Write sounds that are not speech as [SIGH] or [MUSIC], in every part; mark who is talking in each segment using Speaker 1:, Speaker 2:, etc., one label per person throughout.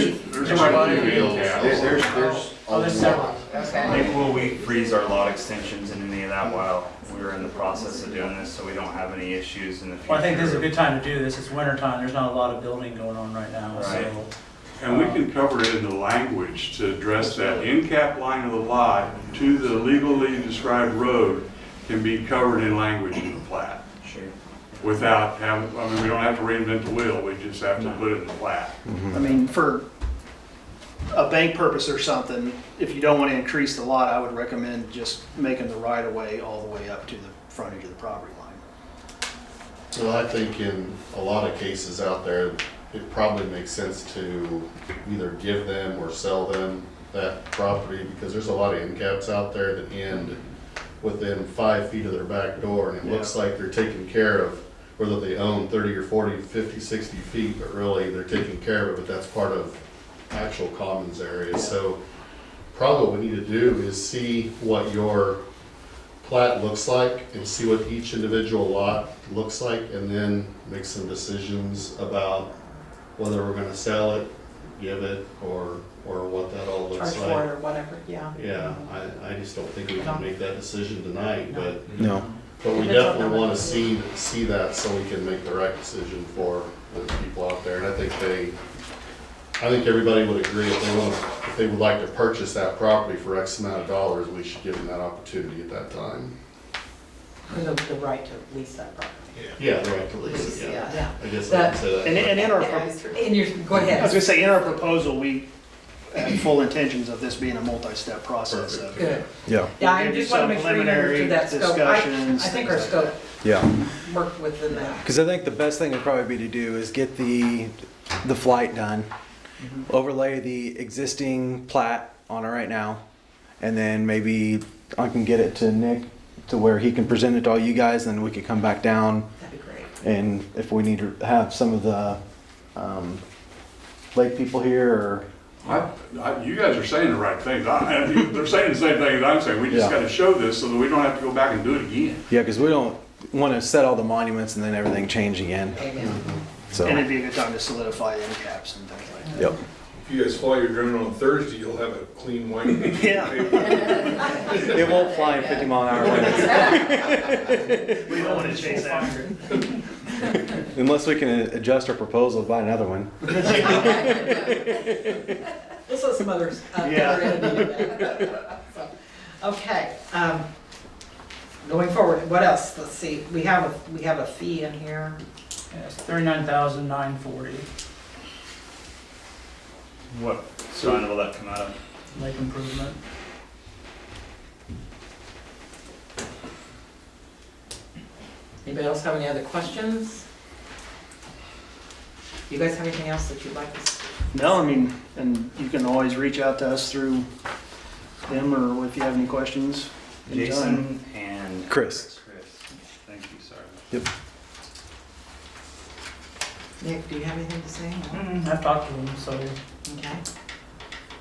Speaker 1: There's
Speaker 2: There might be
Speaker 1: plenty of
Speaker 2: wheels.
Speaker 1: gas.
Speaker 3: There- There's, there's. a
Speaker 4: Oh, there's
Speaker 3: lot.
Speaker 4: several, okay.
Speaker 5: Maybe will we freeze our lot extensions in any of that while we're in the process of doing this, so we don't have any issues in the future?
Speaker 4: Well, I think this is a good time to do this, it's winter time, there's not a lot of building going on right now,
Speaker 5: Right.
Speaker 4: so.
Speaker 1: And we can cover it in the language to address that end cap line of the lot to the legally described road can be covered in language in the plat
Speaker 5: Sure.
Speaker 1: without having, I mean, we don't have to reinvent the wheel, we just have to put it in the plat.
Speaker 6: I mean, for a bank purpose or something, if you don't want to increase the lot, I would recommend just making the right of way all the way up to the frontage of the property line.
Speaker 3: So I think in a lot of cases out there, it probably makes sense to either give them or sell them that property because there's a lot of end caps out there that end within five feet of their back door and it looks like they're taking care of, whether they own thirty or forty, fifty, sixty feet, but really they're taking care of it, but that's part of actual commons area. So probably what we need to do is see what your plat looks like and see what each individual lot looks like and then make some decisions about whether we're gonna sell it, give it, or, or what that all
Speaker 7: charge
Speaker 3: looks
Speaker 7: for it
Speaker 3: like.
Speaker 7: or whatever, yeah.
Speaker 3: Yeah, I, I just don't think we can make that decision tonight, but,
Speaker 8: No.
Speaker 3: but we
Speaker 7: Depends on how
Speaker 3: definitely
Speaker 7: much
Speaker 3: wanna
Speaker 7: we-
Speaker 3: see, see that so we can make the right decision for the people out there. And I think they, I think everybody would agree if they want, if they would like to purchase that property for X amount of dollars, we should give them that opportunity at that time.
Speaker 7: And the, the right to lease that property.
Speaker 3: Yeah, the right to lease, it, yeah.
Speaker 7: Yeah.
Speaker 3: I guess I can say
Speaker 6: And,
Speaker 3: that.
Speaker 6: and in our, I
Speaker 7: And you're, go
Speaker 6: was gonna
Speaker 7: ahead.
Speaker 6: say, in our proposal, we have full intentions of this being a multi-step process of
Speaker 7: Good.
Speaker 8: Yeah,
Speaker 7: Yeah, I
Speaker 6: Maybe
Speaker 7: just want
Speaker 6: some
Speaker 7: to make sure we
Speaker 6: preliminary
Speaker 7: understood that scope. I, I
Speaker 6: discussions,
Speaker 7: think our
Speaker 6: things like
Speaker 7: scope
Speaker 8: yeah.
Speaker 7: worked within that.
Speaker 8: Because I think the best thing would probably be to do is get the the flight done, Mm-hmm. overlay the existing plat on it right now, and then maybe I can get it to Nick to where he can present it to all you guys, and then we could come back down
Speaker 7: That'd be great.
Speaker 8: and if we need to have some of the um, lake people here or
Speaker 1: I, I, you guys are saying the right things, I, I- they're saying the same thing that I'm saying, we just
Speaker 8: Yeah.
Speaker 1: gotta show this so that we don't have to go back and do it again.
Speaker 8: yeah, because we don't want to set all the monuments and then everything change again.
Speaker 7: Amen.
Speaker 8: So
Speaker 6: And it'd be a good time to solidify end caps and things like
Speaker 8: yep.
Speaker 9: If you guys fly your drone on Thursday, you'll have a clean white.
Speaker 3: [LAUGHS]
Speaker 6: that. Yeah,
Speaker 8: It won't fly in 50 mile an hour winds.
Speaker 6: we don't want to chase after it.
Speaker 8: Unless we can adjust our proposal, buy another one.
Speaker 7: This is some others. uh,
Speaker 6: Yeah.
Speaker 7: other entity of that. So, Okay, um, going forward, what else? Let's see, we have, a we have a fee in here.
Speaker 4: Yes, thirty-nine thousand nine forty,
Speaker 5: What sign will that come out of?
Speaker 4: lake improvement.
Speaker 7: Anybody else have any other questions? You guys have anything else that you'd like to say?
Speaker 6: No, I mean, and you can always reach out to us through them or if you have any questions. anytime.
Speaker 5: Jason and.
Speaker 8: Chris.
Speaker 5: Chris. Thank you, sorry.
Speaker 7: Nick, do you have anything to say? No?
Speaker 4: Mm, I've talked to them, so
Speaker 7: Okay.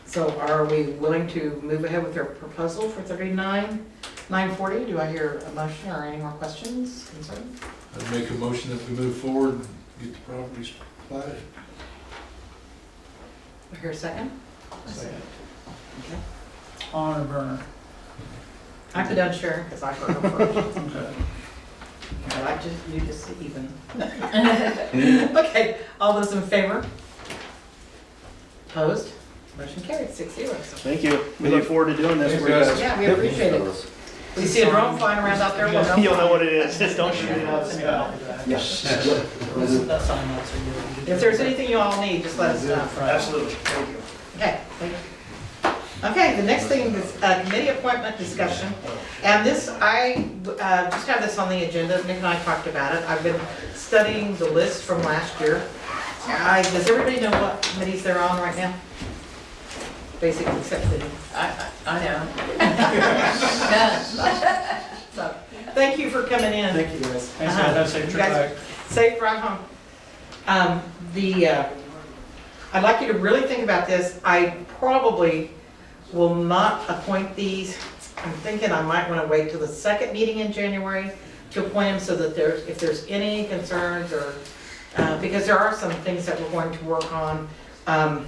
Speaker 7: So are we willing to move ahead with our proposal for thirty-nine, nine forty? Do I hear a motion or any more questions, concerns?
Speaker 9: I'd make a motion that we move forward and get the properties platted.
Speaker 7: Do I Hear a second?
Speaker 9: Second.
Speaker 7: Okay.
Speaker 4: on a burner.
Speaker 7: I put down Sharon because I heard her first.
Speaker 4: Okay.
Speaker 7: But I just, you just even. Okay, all those in favor? Opposed? Motion carried, six zero. So-
Speaker 6: Thank you. We look forward to doing this.
Speaker 9: Thanks,
Speaker 6: We're just-
Speaker 9: guys.
Speaker 7: Yeah, we appreciate it. If you see a drone flying around out
Speaker 6: [LAUGHS]
Speaker 7: there, we'll know.
Speaker 6: You'll know what it is. Just don't shoot it out of the sky.
Speaker 4: Yes. That sign also good.
Speaker 7: If there's anything you all need, just let us know.
Speaker 6: Absolutely. Thank you.
Speaker 7: Okay, thank you. Okay, the next thing is uh, committee appointment discussion. And this, I uh, just have this on the agenda, Nick and I talked about it. I've been studying the list from last year. I- Does everybody know what committees they're on right now? Basically, except for I, I know. [LAUGHS] So, Thank you for coming in.
Speaker 4: Thank you guys. Thanks, guys. Have a safe trip
Speaker 7: You guys-
Speaker 4: back.
Speaker 7: Safe ride home. Um, the, uh, I'd like you to really think about this. I probably will not appoint these. I'm thinking I might want to wait till the second meeting in January to appoint them so that there's, if there's any concerns or, uh, because there are some things that we're going to work on. Um,